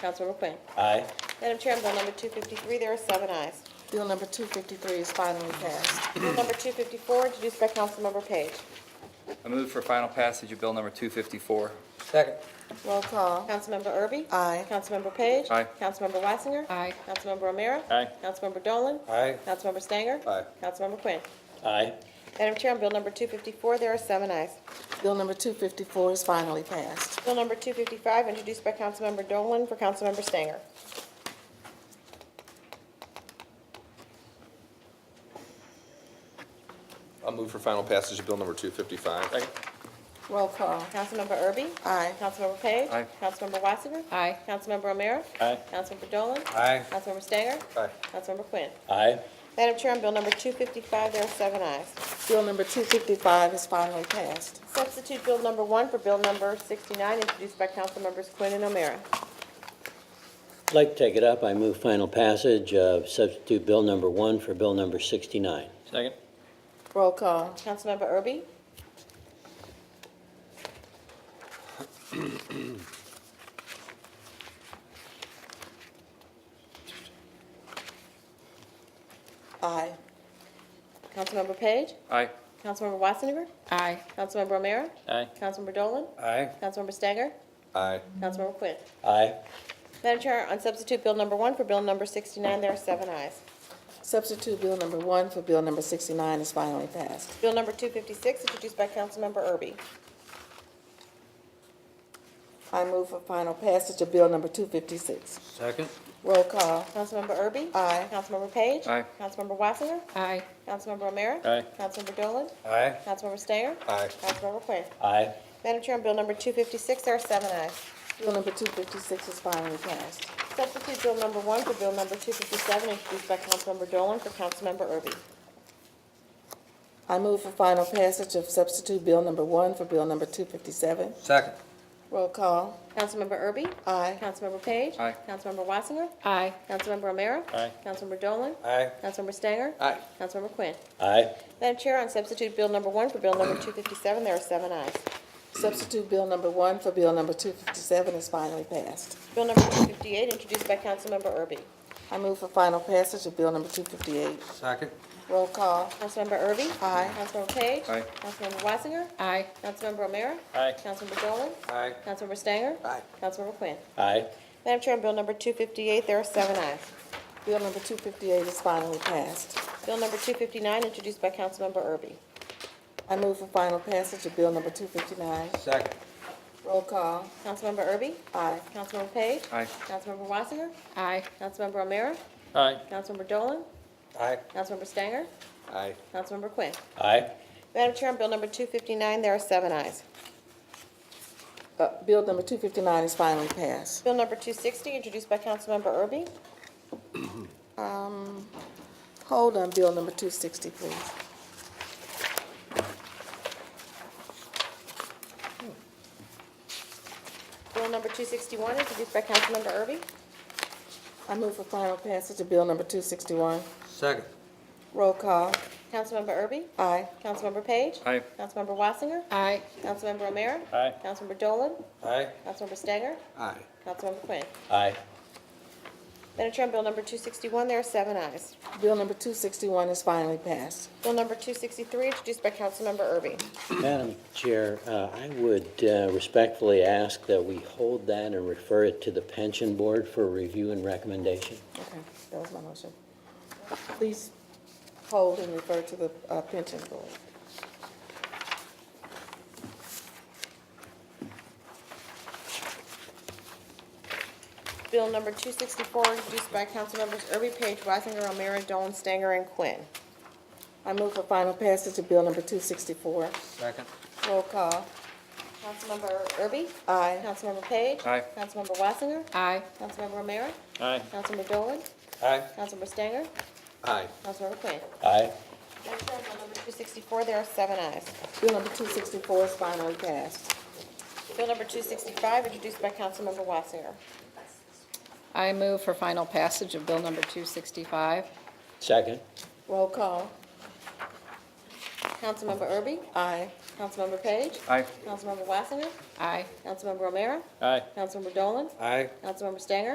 Councilmember Quinn. Aye. Madam Chair, on bill number 253, there are seven ayes. Bill number 253 is finally passed. Bill number 254, introduced by Councilmember Page. I move for final passage of Bill Number 254. Second. Roll call. Councilmember Erby? Aye. Councilmember Page? Aye. Councilmember Wassinger? Aye. Councilmember O'Meara? Aye. Councilmember Dolan? Aye. Councilmember Stanger? Aye. Councilmember Quinn. Aye. Madam Chair, on bill number 254, there are seven ayes. Bill number 254 is finally passed. Bill number 255, introduced by Councilmember Dolan for Councilmember Stanger. I'll move for final passage of bill number 255. Roll call. Councilmember Erby? Aye. Councilmember Page? Aye. Councilmember Wassinger? Aye. Councilmember O'Meara? Aye. Councilmember Dolan? Aye. Councilmember Stanger? Aye. Councilmember Quinn. Aye. Madam Chair, on bill number 255, there are seven ayes. Bill number 255 is finally passed. Substitute bill number one for bill number 69, introduced by Councilmembers Quinn and O'Meara. I'd like to take it up. I move final passage of substitute bill number one for bill number 69. Second. Roll call. Councilmember Erby? Aye. Councilmember Page? Aye. Councilmember Wassinger? Aye. Councilmember O'Meara? Aye. Councilmember Dolan? Aye. Councilmember Stanger? Aye. Councilmember Quinn. Aye. Madam Chair, on substitute bill number one for bill number 69, there are seven ayes. Substitute Bill number 1 for Bill number 69 is finally passed. Bill number 256, introduced by Councilmember Erby. I move for final passage of Bill number 256. Second. Roll call. Councilmember Erby? Aye. Councilmember Page? Aye. Councilmember Wassinger? Aye. Councilmember O'Meara? Aye. Councilmember Dolan? Aye. Councilmember Stanger? Aye. Councilmember Quinn. Aye. Madam Chair, on bill number 256, there are seven ayes. Bill number 256 is finally passed. Substitute Bill number one for Bill number 257, introduced by Councilmember Dolan for Councilmember Erby. I move for final passage of substitute Bill number 1 for Bill number 257. Second. Roll call. Councilmember Erby? Aye. Councilmember Page? Aye. Councilmember Wassinger? Aye. Councilmember O'Meara? Aye. Councilmember Dolan? Aye. Councilmember Stanger? Aye. Councilmember Quinn. Aye. Madam Chair, on substitute Bill number one for Bill number 257, there are seven ayes. Substitute Bill number 1 for Bill number 257 is finally passed. Bill number 258, introduced by Councilmember Erby. I move for final passage of Bill number 258. Second. Roll call. Councilmember Erby? Aye. Councilmember Page? Aye. Councilmember Wassinger? Aye. Councilmember O'Meara? Aye. Councilmember Dolan? Aye. Councilmember Stanger? Aye. Councilmember Quinn. Aye. Madam Chair, on Bill number 258, there are seven ayes. Bill number 258 is finally passed. Bill number 259, introduced by Councilmember Erby. I move for final passage of Bill number 259. Second. Roll call. Councilmember Erby? Aye. Councilmember Page? Aye. Councilmember Wassinger? Aye. Councilmember O'Meara? Aye. Councilmember Dolan? Aye. Councilmember Stanger? Aye. Councilmember Quinn. Aye. Madam Chair, on Bill number 259, there are seven ayes. Uh, Bill number 259 is finally passed. Bill number 260, introduced by Councilmember Erby. Um, Hold on Bill number 260, please. Bill number 261, introduced by Councilmember Erby. I move for final passage of Bill number 261. Second. Roll call. Councilmember Erby? Aye. Councilmember Page? Aye. Councilmember Wassinger? Aye. Councilmember O'Meara? Aye. Councilmember Dolan? Aye. Councilmember Stanger? Aye. Councilmember Quinn. Aye. Madam Chair, on Bill number 261, there are seven ayes. Bill number 261 is finally passed. Bill number 263, introduced by Councilmember Erby. Madam Chair, uh, I would uh, respectfully ask that we hold that and refer it to the pension board for review and recommendation. Okay, that was my motion. Please hold and refer to the uh, pension board. Bill number 264, introduced by Councilmembers Erby, Page, Risinger, O'Meara, Dolan, Stanger, and Quinn. I move for final passage of Bill number 264. Second. Roll call. Councilmember Erby? Aye. Councilmember Page? Aye. Councilmember Wassinger? Aye. Councilmember O'Meara? Aye. Councilmember Dolan? Aye. Councilmember Stanger? Aye. Councilmember Quinn. Aye. Madam Chair, on Bill number 264, there are seven ayes. Bill number 264 is finally passed. Bill number 265, introduced by Councilmember Wassinger. I move for final passage of Bill number 265. Second. Roll call. Councilmember Erby? Aye. Councilmember Page? Aye. Councilmember Wassinger? Aye. Councilmember O'Meara? Aye. Councilmember Dolan? Aye. Councilmember Stanger?